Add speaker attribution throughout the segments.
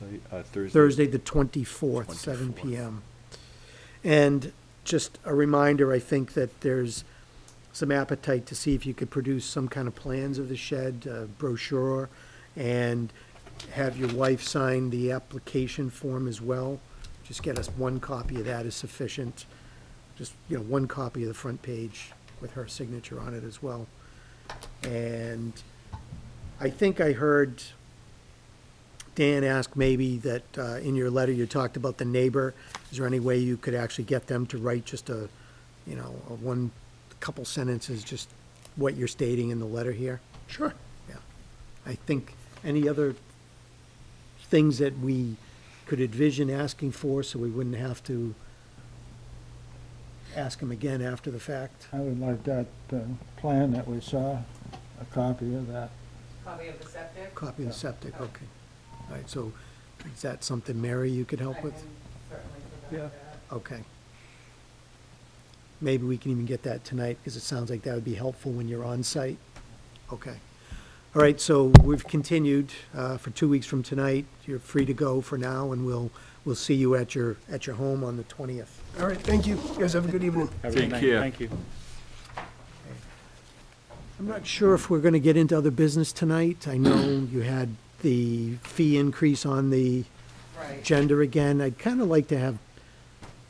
Speaker 1: website, uh, Thursday?
Speaker 2: Thursday, the 24th, seven
Speaker 1: 24th.
Speaker 2: PM. And just a reminder, I think that there's some appetite to see if you could produce some kind of plans of the shed, uh, brochure, and have your wife sign the application form as well. Just get us one copy of that is sufficient. Just, you know, one copy of the front page with her signature on it as well. And I think I heard Dan asked maybe that, uh, in your letter, you talked about the neighbor. Is there any way you could actually get them to write just a, you know, a one, couple sentences, just what you're stating in the letter here?
Speaker 3: Sure.
Speaker 2: Yeah. I think, any other things that we could envision asking for so we wouldn't have to ask them again after the fact?
Speaker 3: I would like that uh, plan that we saw, a copy of that.
Speaker 4: Copy of the septic?
Speaker 2: Copy of the septic, okay. All right, so is that something, Mary, you could
Speaker 4: I
Speaker 2: help
Speaker 4: can
Speaker 2: with?
Speaker 4: certainly
Speaker 3: Yeah.
Speaker 4: provide that.
Speaker 2: Okay. Maybe we can even get that tonight, because it sounds like that would be helpful when you're on site. Okay. All right, so we've continued uh, for two weeks from tonight. You're free to go for now, and we'll, we'll see you at your, at your home on the 20th.
Speaker 5: All right, thank you. You guys have a good evening.
Speaker 6: Have a good
Speaker 1: Take
Speaker 6: night.
Speaker 1: care.
Speaker 6: Thank you.
Speaker 2: I'm not sure if we're going to get into other business tonight. I know you had the fee increase on the
Speaker 4: Right.
Speaker 2: agenda again. I'd kind of like to have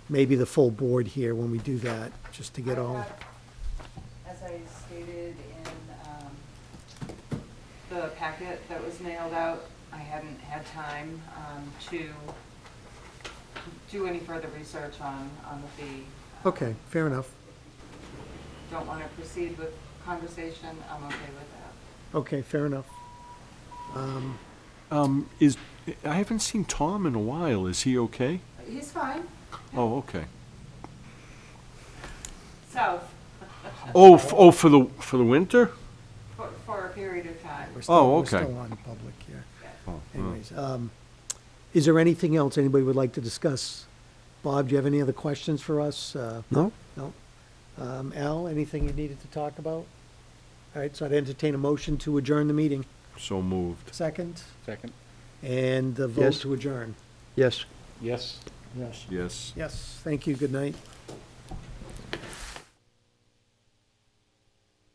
Speaker 2: maybe the full board here when we do that, just to get
Speaker 4: I
Speaker 2: all,
Speaker 4: have- As I stated in um, the packet that was mailed out, I hadn't had time um, to do any further research on, on the fee.
Speaker 2: okay, fair enough.
Speaker 4: Don't want to proceed with conversation, I'm okay with that.
Speaker 2: Okay, fair enough.
Speaker 1: Um, is, I haven't seen Tom in a while, is he okay?
Speaker 4: He's fine,
Speaker 1: Oh, okay.
Speaker 4: so,
Speaker 1: Oh, f- oh, for the, for the winter?
Speaker 4: for, for a period of time.
Speaker 2: We're still-
Speaker 1: Oh,
Speaker 2: We're
Speaker 1: okay.
Speaker 2: still on public here.
Speaker 1: Oh, oh.
Speaker 2: Anyways, um, is there anything else anybody would like to discuss? Bob, do you have any other questions for us? Uh,
Speaker 7: No?
Speaker 2: No? Um, Al, anything you needed to talk about? All right, so I'd entertain a motion to adjourn the meeting.
Speaker 1: So moved.
Speaker 2: Second,
Speaker 6: Second.
Speaker 2: and the vote
Speaker 7: Yes.
Speaker 2: to adjourn.
Speaker 7: Yes.
Speaker 6: Yes.
Speaker 3: Yes.
Speaker 1: Yes.
Speaker 2: Yes, thank you, good night.